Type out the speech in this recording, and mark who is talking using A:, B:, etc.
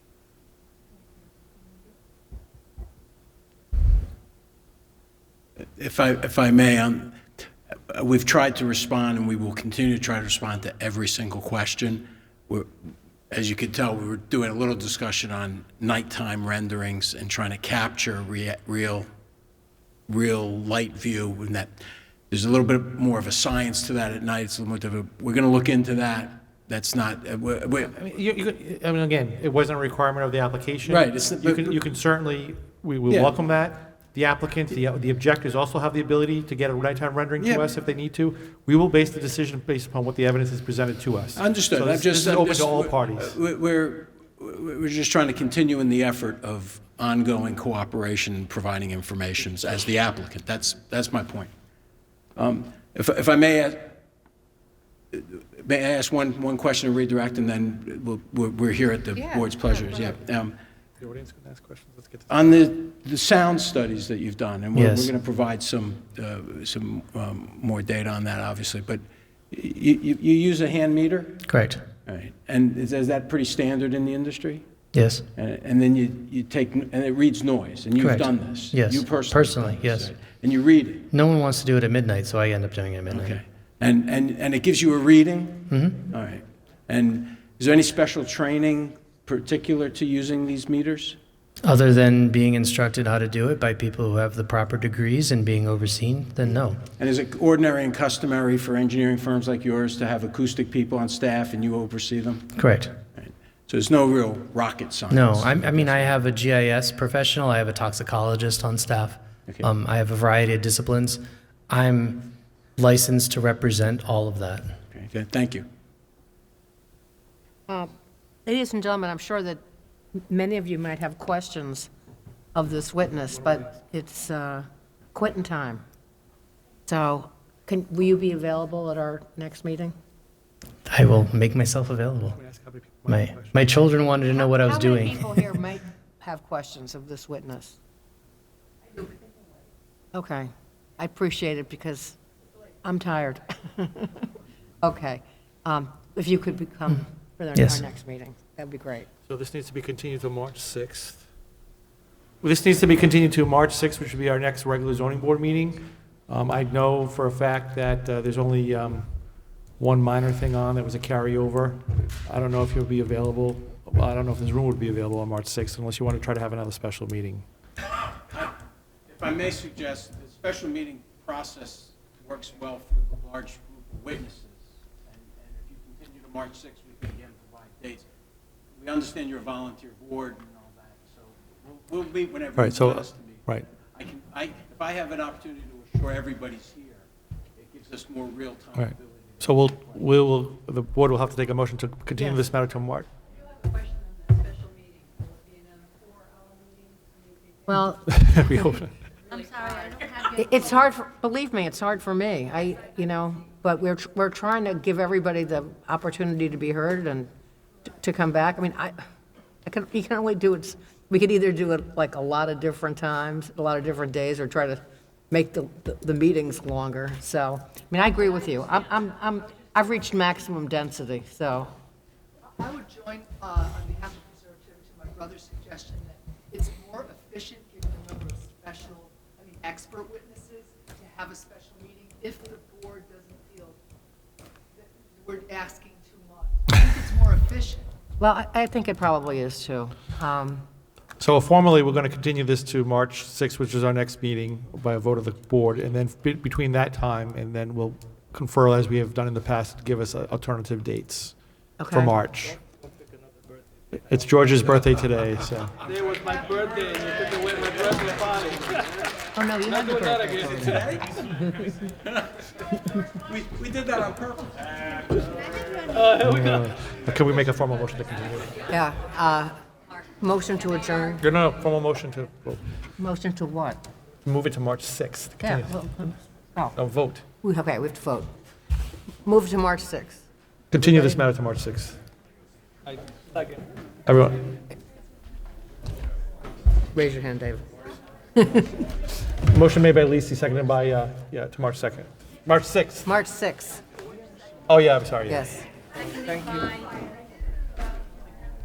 A: If I, if I may, um, uh, we've tried to respond, and we will continue to try to respond to every single question. We're- As you can tell, we were doing a little discussion on nighttime renderings and trying to capture rea- real, real light view, and that, there's a little bit more of a science to that at night, it's a little bit of a, we're going to look into that, that's not, uh, we- we-
B: I mean, you, you, could- I mean, again, it wasn't a requirement of the application.
A: Right, it's-
B: You can, you can certainly, we will
A: Yeah.
B: welcome that. The applicant, the, the objectors also have the ability to get a nighttime rendering
A: Yeah.
B: to us if they need to. We will base the decision based upon what the evidence is presented to us.
A: Understood.
B: So
A: I'm
B: this-
A: just.
B: This is
A: I'm
B: open
A: just-
B: to all parties.
A: we- We're, we're we're just trying to continue in the effort of ongoing cooperation, and providing informations as the applicant. That's, that's my point. Um, If, if I may, ask- may I ask one, one question and redirect, and then we'll- we're, we're here at the
C: Yeah,
A: board's
C: yeah,
A: pleasures,
C: go
A: yeah.
C: ahead.
A: Um,
B: The audience can ask questions. Let's get to.
A: On the, the sound studies that you've done, and we're, we're
B: Yes.
A: going to provide some, uh, some um, more data on that, obviously, but you, you, you use a hand meter?
D: Correct.
A: All right, and is is that pretty standard in the industry?
D: Yes.
A: And and then you, you take, and it reads noise, and you've
D: Correct.
A: done this?
D: Yes.
A: You personally?
D: Personally,
A: done this,
D: yes.
A: right? And you read it,
D: No one wants to do it at midnight, so I end up doing it at midnight.
A: okay. And, and, and it gives you a reading? Mm-hmm. All right. And is there any special training particular to using these meters?
D: Other than being instructed how to do it by people who have the proper degrees and being overseen, then no.
A: And is it ordinary and customary for engineering firms like yours to have acoustic people on staff and you oversee them?
D: Correct.
A: All right. So there's no real rocket science?
D: No, I'm, I mean, I have a GIS professional, I have a toxicologist on staff,
A: Okay.
D: um, I have a variety of disciplines. I'm licensed to represent all of that.
A: Okay, good. thank you.
C: Ladies and gentlemen, I'm sure that many of you might have questions of this witness, but it's uh, quitting time. So can, will you be available at our next meeting?
D: I will make myself available. My, my children wanted to know what I was
C: How many
D: doing.
C: people here might have questions of this witness? Okay, I appreciate it because I'm tired. Okay, Um, if you could become for our
D: Yes.
C: next meeting, that'd be great.
B: So this needs to be continued to March 6th. Well, This needs to be continued to March 6th, which would be our next regular zoning board meeting. Um, I know for a fact that uh, there's only um, one minor thing on that was a carryover. I don't know if you'll be available, well, I don't know if this room would be available on March 6th unless you want to try to have another special meeting.
A: If I may suggest, the special meeting process works well for the large group of witnesses. And and if you continue to March 6th, we can again provide dates. We understand you're a volunteer board and all that, so we'll, we'll meet whenever
B: Right,
A: you
B: so-
A: want us to meet.
B: right.
A: I can, I, if I have an opportunity to assure everybody's here, it gives us more real-time
B: All right.
A: ability. to-
B: So we'll, we'll, the board will have to take a motion to continue
C: Yes.
B: this matter to March.
E: do have a question on the special meeting. Will it be another four-hour
C: Well,
E: meeting?
B: We hope-
E: I'm sorry, I don't have
C: It- It's hard, for- believe me, it's hard for me. I, you know, but we're, tr- we're trying to give everybody the opportunity to be heard and t- to come back. I mean, I, I can, you can only do it, we could either do it like a lot of different times, a lot of different days, or try to make the, the- the meetings longer. So, I mean, I agree with you. I'm, I'm, I'm, I've reached maximum density, so.
F: I would join uh, on behalf of Conservative to my brother's suggestion that it's more efficient, given the number of special, I mean, expert witnesses, to have a special meeting if the board doesn't feel that we're asking too much. I think it's more efficient.
C: Well, I, I think it probably is too. Um,
B: So formally, we're going to continue this to March 6th, which is our next meeting by a vote of the board. And then be- between that time, and then we'll confer as we have done in the past, to give us uh, alternative dates for
C: Okay.
B: March. It's George's birthday today, so.
G: It was my birthday and you took away my birthday party.
C: Oh, no, you have the
G: Not
C: birthday.
G: again.
A: We, we did that on purpose.
B: Uh, Can we make a formal motion to continue?
C: Yeah. uh, Motion to adjourn.
B: No, no, no, formal motion to well,
C: Motion to what?
B: move it to March 6th.
C: Yeah,
B: Continue.
C: well, oh,
B: No, vote.
C: we- okay, we have to vote. Move to March 6th.
B: Continue this matter to March 6th.
G: I second.
B: Everyone,
C: Raise your hand, David.
B: motion made by Lisi, seconded by, uh, yeah, to March 2nd. March 6th.
C: March 6th,
B: Oh, yeah, I'm sorry. yeah.
C: yes.
E: Thank you.